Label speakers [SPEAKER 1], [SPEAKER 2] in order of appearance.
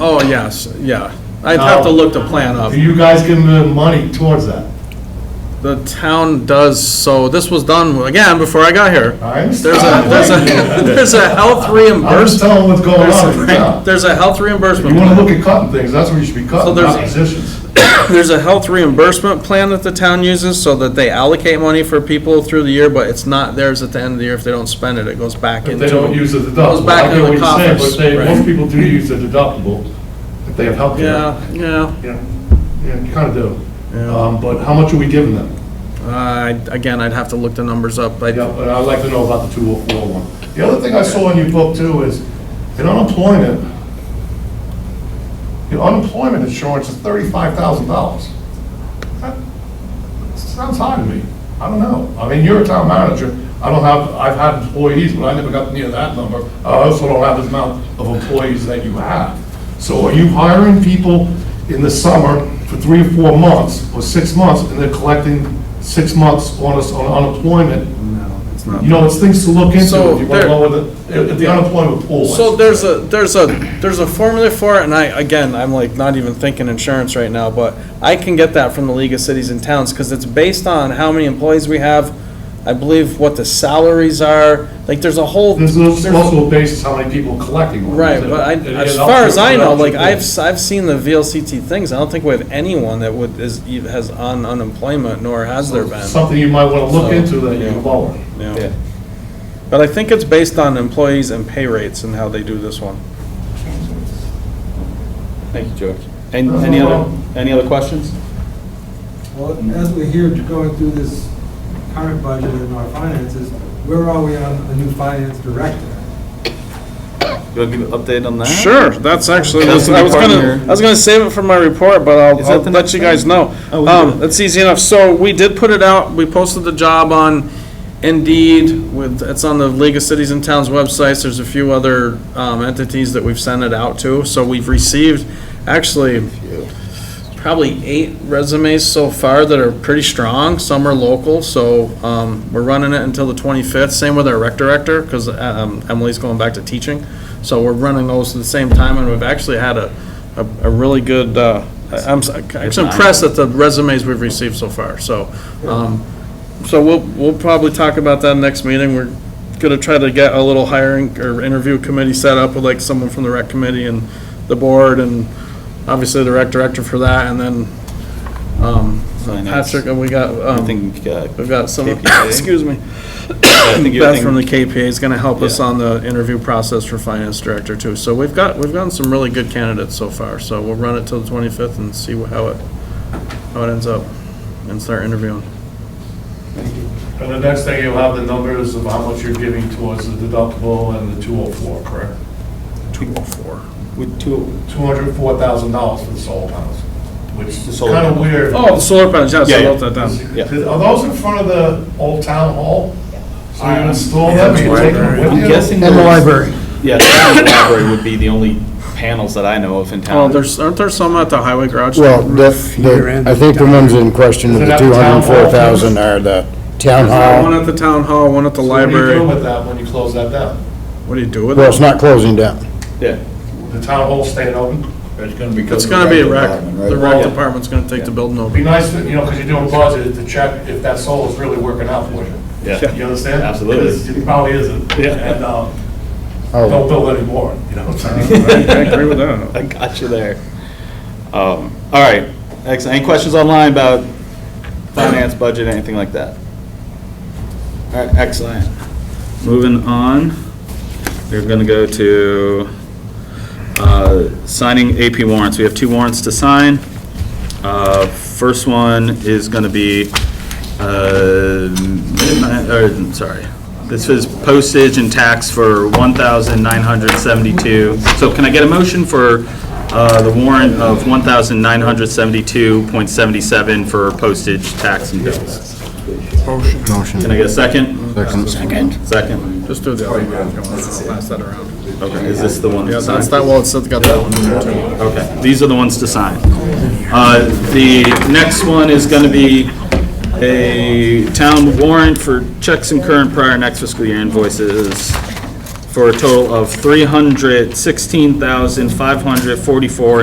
[SPEAKER 1] Oh, yes, yeah. I'd have
[SPEAKER 2] Oh.
[SPEAKER 1] to look the plan up.
[SPEAKER 2] Are you guys giving them money towards that?
[SPEAKER 1] The town does, so this was done, again, before I got here.
[SPEAKER 2] I
[SPEAKER 1] There's a,
[SPEAKER 2] understand.
[SPEAKER 1] there's a, there's a health
[SPEAKER 2] I'm just
[SPEAKER 1] reimbursement.
[SPEAKER 2] telling what's going on right now.
[SPEAKER 1] There's a health
[SPEAKER 2] You wanna
[SPEAKER 1] reimbursement.
[SPEAKER 2] look at cutting things, that's where you should be
[SPEAKER 1] So
[SPEAKER 2] cutting,
[SPEAKER 1] there's-
[SPEAKER 2] not positions.
[SPEAKER 1] There's a health reimbursement plan that the town uses so that they allocate money for people through the year, but it's not theirs at the end of the year if they don't spend it. It goes back
[SPEAKER 2] If
[SPEAKER 1] into.
[SPEAKER 2] they don't use the
[SPEAKER 1] Goes
[SPEAKER 2] deductible.
[SPEAKER 1] back
[SPEAKER 2] I
[SPEAKER 1] into
[SPEAKER 2] get what
[SPEAKER 1] the
[SPEAKER 2] you're saying,
[SPEAKER 1] coffers,
[SPEAKER 2] But they,
[SPEAKER 1] right.
[SPEAKER 2] most people do use the deductible if they have health care.
[SPEAKER 1] Yeah, yeah.
[SPEAKER 2] Yeah, yeah, you kinda do.
[SPEAKER 1] Yeah.
[SPEAKER 2] Um, but how much are we giving them?
[SPEAKER 1] Uh, again, I'd have to look the numbers up, but
[SPEAKER 2] Yeah, but I'd like to know about the 20401. The other thing I saw in your book too is, in unemployment, your unemployment insurance is $35,000. That Sounds high to me. I don't know. I mean, you're a town manager. I don't have, I've had employees, but I never got near that number. I also don't have the amount of employees that you have. So are you hiring people in the summer for three or four months, or six months, and they're collecting six months on us on unemployment
[SPEAKER 1] no, it's not.
[SPEAKER 2] you know, it's things to look into,
[SPEAKER 1] So
[SPEAKER 2] if you want
[SPEAKER 1] there-
[SPEAKER 2] to lower the, if the unemployment pool. is.
[SPEAKER 1] So there's a, there's a, there's a formula for it, and I, again, I'm like not even thinking insurance right now, but I can get that from the League of Cities and Towns, because it's based on how many employees we have, I believe what the salaries are, like, there's a whole.
[SPEAKER 2] There's
[SPEAKER 1] there's-
[SPEAKER 2] also a basis how many people collecting on it.
[SPEAKER 1] Right, but I,
[SPEAKER 2] And it
[SPEAKER 1] as
[SPEAKER 2] adds up
[SPEAKER 1] far
[SPEAKER 2] to-
[SPEAKER 1] as I know,
[SPEAKER 2] it adds up
[SPEAKER 1] like,
[SPEAKER 2] to-
[SPEAKER 1] I've, s- I've seen the VLCT things, I don't think we have anyone that would, is, e- has on unemployment, nor has there been.
[SPEAKER 2] Something you might want to
[SPEAKER 1] So,
[SPEAKER 2] look into that you can
[SPEAKER 1] yeah.
[SPEAKER 2] lower.
[SPEAKER 1] Yeah. But I think it's based on employees and pay rates and how they do this one.
[SPEAKER 3] Thank you, George. And any other, any other questions?
[SPEAKER 4] Well, as we're here going through this current budget and our finances, where are we on the new finance director?
[SPEAKER 3] You want to give an update on that?
[SPEAKER 1] Sure, that's actually, I was
[SPEAKER 3] That's an important
[SPEAKER 1] gonna,
[SPEAKER 3] year.
[SPEAKER 1] I was gonna save it for my report, but I'll,
[SPEAKER 3] Is that
[SPEAKER 1] I'll
[SPEAKER 3] the
[SPEAKER 1] let
[SPEAKER 3] next
[SPEAKER 1] you guys
[SPEAKER 3] thing?
[SPEAKER 1] know.
[SPEAKER 3] Oh, we
[SPEAKER 1] Um,
[SPEAKER 3] did.
[SPEAKER 1] that's easy enough, so we did put it out, we posted the job on Indeed with, it's on the League of Cities and Towns websites, there's a few other, um, entities that we've sent it out to, so we've received, actually, probably eight resumes so far that are pretty strong. Some are local, so um, we're running it until the 25th. Same with our rec director, because Emily's going back to teaching. So we're running those at the same time, and we've actually had a, a a really good, uh, I'm s- actually impressed at the resumes we've received so far, so. um, So we'll, we'll probably talk about that next meeting. We're going to try to get a little hiring or interview committee set up with like someone from the rec committee and the board and obviously the rec director for that, and then, um,
[SPEAKER 3] Finance.
[SPEAKER 1] Patrick, and we got,
[SPEAKER 3] I
[SPEAKER 1] um,
[SPEAKER 3] think, uh,
[SPEAKER 1] we've got some,
[SPEAKER 3] KPA.
[SPEAKER 1] excuse me,
[SPEAKER 3] I think
[SPEAKER 1] Beth from the
[SPEAKER 3] everything,
[SPEAKER 1] KPA is gonna help us
[SPEAKER 3] Yeah.
[SPEAKER 1] on the interview process for finance director too. So we've got, we've gotten some really good candidates so far, so we'll run it till the twenty-fifth and see wh- how it, how it ends up, and start interviewing.
[SPEAKER 2] And the next thing, you'll have the numbers of how much you're giving towards the deductible and the 204, correct?
[SPEAKER 1] Two oh four.
[SPEAKER 3] with two,
[SPEAKER 2] $204,000 for the solar panels, which
[SPEAKER 3] The
[SPEAKER 2] is
[SPEAKER 3] solar
[SPEAKER 2] kind of
[SPEAKER 3] panels.
[SPEAKER 2] weird.
[SPEAKER 1] Oh, the solar panels, yes, I
[SPEAKER 3] Yeah, yeah.
[SPEAKER 1] wrote that down.
[SPEAKER 3] yeah.
[SPEAKER 2] Are those in front of the old town hall? So
[SPEAKER 3] Um,
[SPEAKER 2] you install
[SPEAKER 5] Yeah,
[SPEAKER 2] them,
[SPEAKER 5] that's
[SPEAKER 2] you take them
[SPEAKER 5] library.
[SPEAKER 2] with you?
[SPEAKER 3] I'm guessing.
[SPEAKER 5] And the
[SPEAKER 3] those-
[SPEAKER 5] library.
[SPEAKER 3] Yeah, that and the library would be the only panels that I know of in town.
[SPEAKER 1] Well, Oh, there's, aren't there some at the highway garage?
[SPEAKER 5] Well, the, the- I think the ones in question
[SPEAKER 2] Is
[SPEAKER 5] of
[SPEAKER 2] it
[SPEAKER 5] the
[SPEAKER 2] at the town hall?
[SPEAKER 5] 204,000 are the uh, town
[SPEAKER 1] One
[SPEAKER 5] hall.
[SPEAKER 1] at the town hall, one at the
[SPEAKER 2] So What do you do
[SPEAKER 1] library.
[SPEAKER 2] with that when you close that down?
[SPEAKER 1] What do you do with
[SPEAKER 5] Well,
[SPEAKER 1] it?
[SPEAKER 5] it's not closing down.
[SPEAKER 3] Yeah,
[SPEAKER 2] The town hall staying open?
[SPEAKER 6] It's gonna be.
[SPEAKER 1] It's gonna be a rec, the rec
[SPEAKER 2] Yeah.
[SPEAKER 1] department's gonna take the building
[SPEAKER 2] Be
[SPEAKER 1] over.
[SPEAKER 2] nice, to- you know, because you're doing budget, to check if that solar's really working out for you.
[SPEAKER 3] Yeah.
[SPEAKER 2] You understand?
[SPEAKER 3] Absolutely.
[SPEAKER 2] Because It probably isn't.
[SPEAKER 3] Yeah.
[SPEAKER 2] And, um, don't
[SPEAKER 5] Oh,
[SPEAKER 2] build anymore, you know what I'm
[SPEAKER 1] I
[SPEAKER 2] saying?
[SPEAKER 1] agree with that.
[SPEAKER 3] I got you there. Um, All right, excellent. Any questions online about finance, budget, anything like that? All right, excellent. Moving on, we're going to go to uh, signing AP warrants. We have two warrants to sign. Uh, First one is going to be, uh, midnight- or, sorry, this is postage and tax for 1972 So can I get a motion for uh, the warrant of 1972.77 for postage, tax, and bills? Can I get a second? Second. Second.
[SPEAKER 1] Just do the
[SPEAKER 2] Oh,
[SPEAKER 1] other one, pass that around.
[SPEAKER 3] Okay, is this the one?
[SPEAKER 1] Yeah,
[SPEAKER 3] to sign?
[SPEAKER 1] that's that, well, it's got that one.
[SPEAKER 3] Okay, these are the ones to sign. Uh, The next one is going to be a town warrant for checks and current prior next fiscal year invoices for a total of three hundred sixteen thousand five hundred forty-four